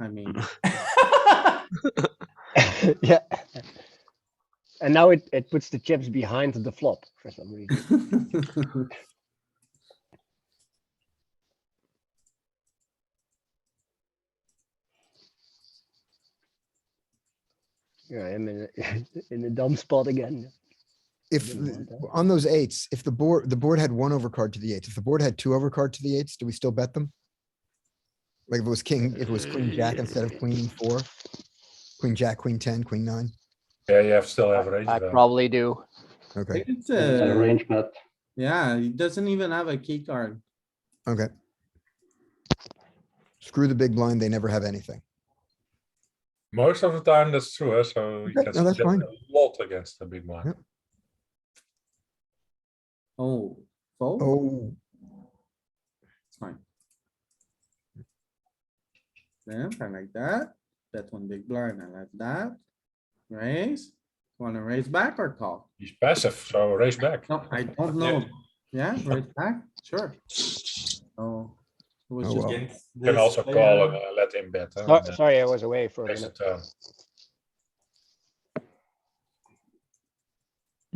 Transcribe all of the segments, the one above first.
I mean, yeah. And now it, it puts the chips behind the flop for some reason. Yeah, I'm in, a- in a dumb spot again. If, Didn't the- want that. on those eights, if the board, the board had one overcard to the eights, if the board had two overcard to the eights, do we still bet them? Like if it was king, if it was queen jack instead of queen four, queen jack, queen ten, queen nine, Yeah, you have still have range. I there. probably do. okay, it's It's a uh range bet. yeah, he doesn't even have a key card. okay. Screw the big blind, they never have anything. Most of the time, that's true, eh, so you Okay, can no, that's get fine. a lot against the big blind. Yep. Oh, fold, Oh, it's fine. Then I like that. Bet one big blind, I like that. Raise, wanna raise back or call? He's passive, so raise back. No, I don't know. Yeah, raise back, sure. Oh. it was Oh, just- well. Against You can this also call player, and uh, let him bet. eh, So- and, uh, Sorry, I was away for a raise the minute. turn.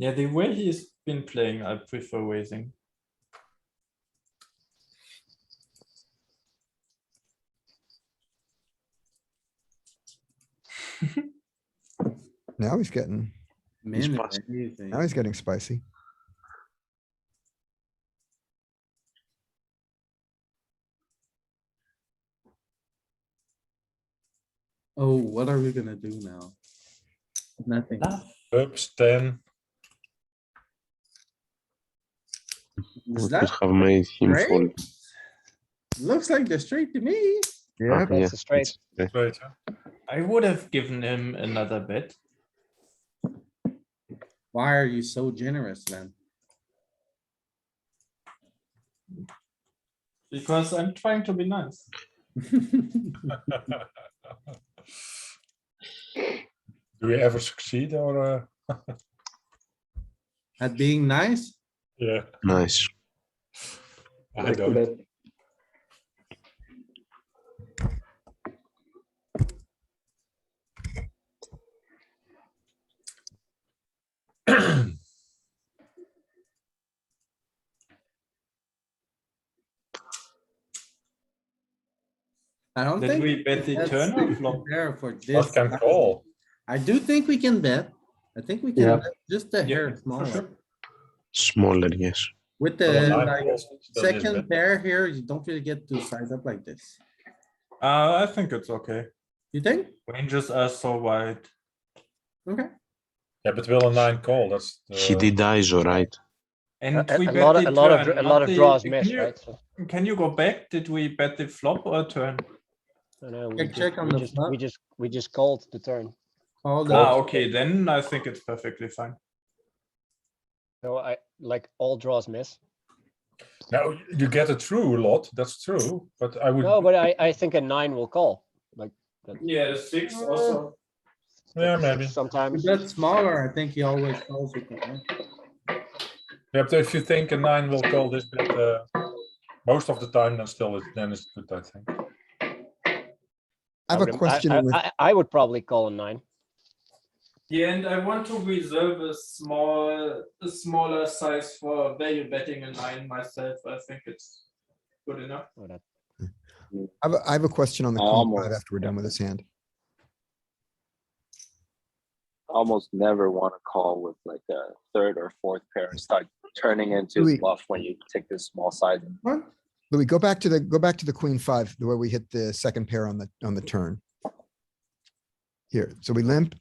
Yeah, the way he's been playing, I prefer raising. now he's getting, Man, possible. amazing. now he's getting spicy. Oh, what are we gonna do now? Nothing. Oops, ten. Is Let's that, have made him great? fold. looks like the straight to me. Yeah, yeah, That's a straight. it's- yeah. Straight, eh? I would have given him another bet. Why are you so generous then? Because I'm trying to be nice. Do we ever succeed or, uh, At being nice? yeah, Nice. I don't. I don't Did think. we bet the that's turn or flop? fair for this. What can call? I do think we can bet. I think we Yeah. can, bet just a Yeah, hair for smaller. sure. Smaller, yes. With Well, the nine like, calls, it's still this Uh, second bad. pair here, you don't really get to size up like this. Uh, I think it's okay. You think? Ranges are so wide. Okay. Yeah, but will a nine call, that's. He uh, did ISO, right? And A- we A a bet lot, of- the a lot of, turn, dr- a not lot of the- draws can miss, you- right? So- Can you go back? Did we bet the flop or turn? no, no, we Check, just- check on we the just- flop. We just, we just called the turn. All Ah, the, okay, then I think it's perfectly fine. So I, like, all draws miss. Now, you get it through a lot, that's true, but I would. No, but I, I think a nine will call. Yeah, six also. Yeah, maybe. Sometimes. that's smaller, I think he always calls with it. right? Yeah, but if you think a nine will call this bet, uh, most of the time, then still, it- then it's good, I think. I have a would- question I, with, I, I would probably call a nine. Yeah, and I want to reserve a small, a smaller size for value betting a nine myself. I think it's good enough. Oh, that- I have, a- I have a question on the queen Almost. five after we're done with this hand. almost never want to call with like a third or fourth pair and start turning into Louis. bluff when you take this small side. What? Louis, go back to the, go back to the queen five, the way we hit the second pair on the, on the turn. Here, so we limp.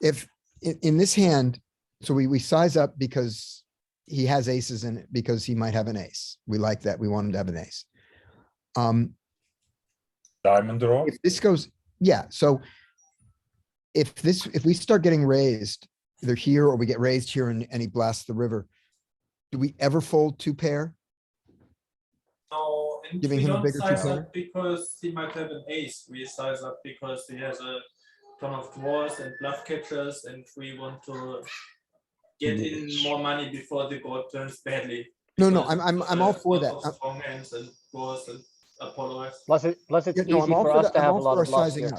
If, in, in this hand, so we, we size up because he has aces in it because he might have an ace. We like that. We want him to have an ace. Um, Diamond draw, if this goes, yeah, so if this, if we start getting raised, either here or we get raised here and, and he blasts the river, do we ever fold two pair? No, and Giving we him a don't bigger size two-pair? up because he might have an ace. We size up because he has a ton of dwarfs and bluff catchers, and we want to get in more money before the board turns badly. No, no, because I'm, I'm, of I'm the all for lot that. of I'm- Strong hands and dwarfs and Apollo has. Plus it, plus it's Yeah, no, easy I'm all for for us the- to I'm have a all lot for of bluffs sizing here. up.